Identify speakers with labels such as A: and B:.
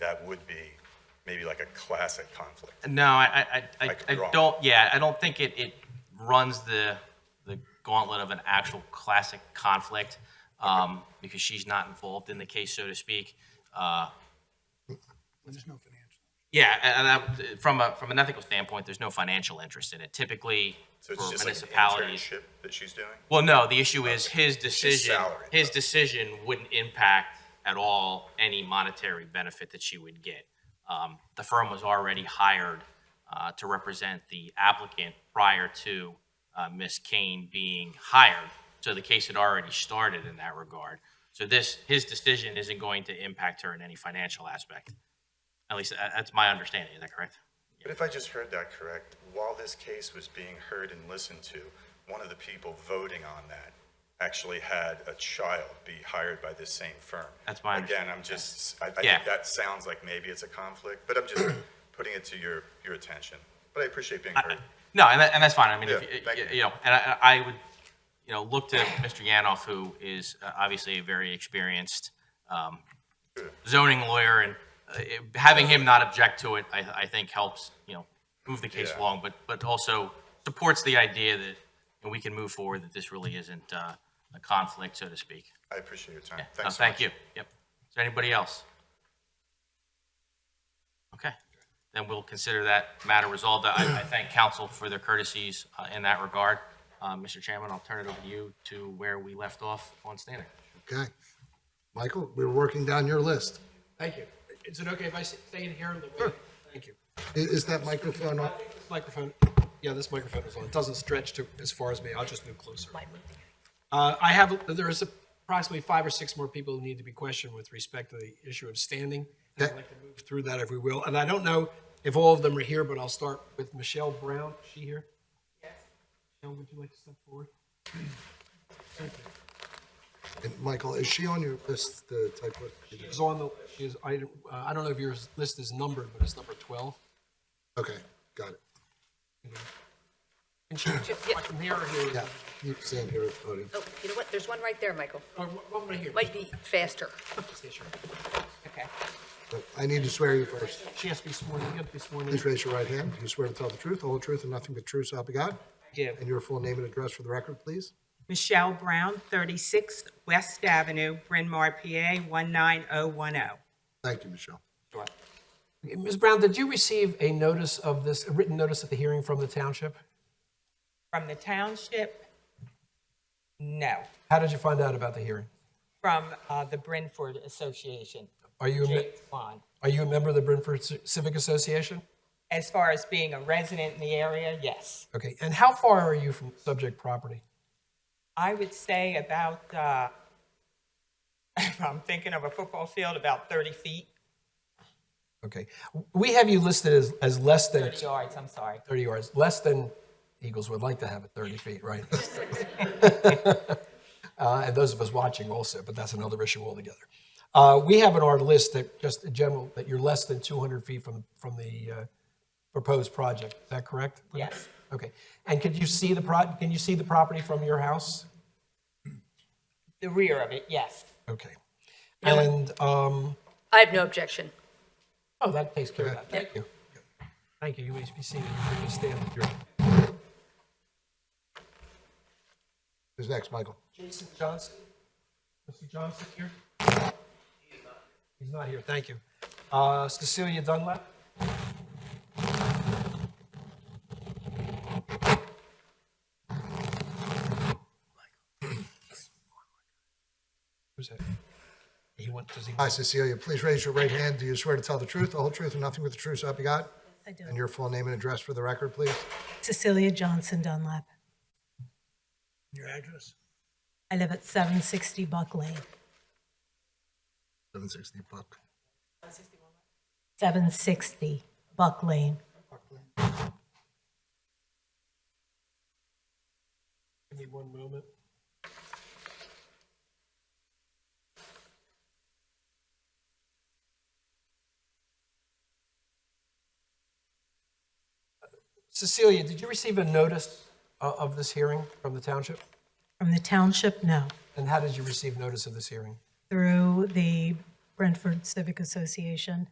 A: that would be maybe like a classic conflict.
B: No, I, I- I, I,
A: Like
B: I
A: wrong.
B: don't, yeah, I don't think it, it runs the, the gauntlet of an actual classic conflict, um, because she's not involved in the case, so to speak. Uh,
C: There's no financial.
B: yeah, and and that, from a, from an ethical standpoint, there's no financial interest in it. Typically,
A: So
B: for
A: it's just like an
B: municipalities.
A: internship that she's doing?
B: Well, no, the issue is his decision,
A: salary,
B: his
A: though.
B: decision wouldn't impact at all any monetary benefit that she would get. Um, The firm was already hired uh, to represent the applicant prior to uh, Ms. Kane being hired, so the case had already started in that regard. So this, his decision isn't going to impact her in any financial aspect. At least, tha- that's my understanding, is that correct?
A: But if I just heard that correct, while this case was being heard and listened to, one of the people voting on that actually had a child be hired by this same firm.
B: That's my
A: Again, I'm just, I, I
B: Yeah.
A: think that sounds like maybe it's a conflict, but I'm just putting it to your, your attention. But I appreciate being heard.
B: No, and, that, and that's fine. I mean,
A: Yeah, thank
B: if,
A: you.
B: you know, and I, I would, you know, look to Mr. Yanoff, who is uh, obviously a very experienced um, zoning lawyer, and uh, it- having him not object to it, I, I think helps, you know, move the case
A: Yeah.
B: along, but, but also supports the idea that you know, we can move forward, that this really isn't uh, a conflict, so to speak.
A: I appreciate your time.
B: No,
A: Thanks so
B: Thank
A: much.
B: you. Yep. Is there anybody else? Okay, then we'll consider that matter resolved. I, I thank council for their courtesies uh, in that regard. Uh, Mr. Chairman, I'll turn it over to you to where we left off on standing.
C: Okay. Michael, we were working down your list.
D: Thank you. Is it okay if I s- stay in here? in the way? Thank you.
C: I- Is that microphone on?
D: Microphone, yeah, this microphone is on. It doesn't stretch to as far as me. I'll just move closer. Uh, I have, there is approximately five or six more people who need to be questioned with respect to the issue of standing. And I'd
C: Okay.
D: like to move through that if we will. And I don't know if all of them are here, but I'll start with Michelle Brown. Is she here? Yes. Michelle, would you like to step forward?
C: And Michael, is she on your list, the type of?
D: She's on the, she's, I, uh, I don't know if your list is numbered, but it's number 12.
C: Okay, got it.
D: And she, from here or here?
C: Yeah, you stand here at the podium.
E: Oh, you know what? There's one right there, Michael.
D: Or Oh, one right here.
E: Might be faster.
D: Yeah, sure.
E: Okay.
C: But I need to swear you first.
D: She has to be sworn, you have to be sworn in.
C: Please raise your right hand. Do you swear to tell the truth, the whole truth, and nothing but true, so help you God?
F: do.
C: And your full name and address for the record, please?
F: Michelle Brown, 36 West Avenue, Bryn Mawr, PA 19010.
C: Thank you, Michelle.
D: Ms. Brown, did you receive a notice of this, a written notice of the hearing from the township?
F: From the township? No,
D: How did you find out about the hearing?
F: from uh, the Brentford Association.
D: Are you a me-
F: James Bond.
D: Are you a member of the Brentford Ci- Civic Association?
F: As far as being a resident in the area, yes.
D: Okay, and how far are you from subject property?
F: I would say about, uh, if I'm thinking of a football field, about 30 feet,
D: Okay, we have you listed as, as less than
F: 30 yards, I'm sorry.
D: 30 yards, less than Eagles would like to have at 30 feet, right? Uh, And those of us watching also, but that's another issue altogether. Uh, We have on our list that just in general, that you're less than 200 feet from, from the uh, proposed project. Is that correct?
F: Yes.
D: Okay. And could you see the pro, can you see the property from your house?
F: The rear of it, yes.
D: Okay. And, um,
E: I have no objection.
D: oh, that takes care of that. Thank you. Thank you. You may be seated. You can stand if you're-
C: Who's next, Michael?
D: Jason Johnson? Mr. Johnson here? He's not here, thank you. Uh, Cecilia Dunlap? Who's that? He went, does he?
C: Hi, Cecilia. Please raise your right hand. Do you swear to tell the truth, the whole truth, and nothing but the truth, so help you God?
G: I do.
C: And your full name and address for the record, please?
G: Cecilia Johnson Dunlap.
D: Your address?
G: I live at 760 Buck Lane,
C: 760 Buck.
G: 760 Buck Lane.
D: Give me one moment. Cecilia, did you receive a notice o- of this hearing from the township?
G: From the township, no,
D: And how did you receive notice of this hearing?
G: through the Brentford Civic Association.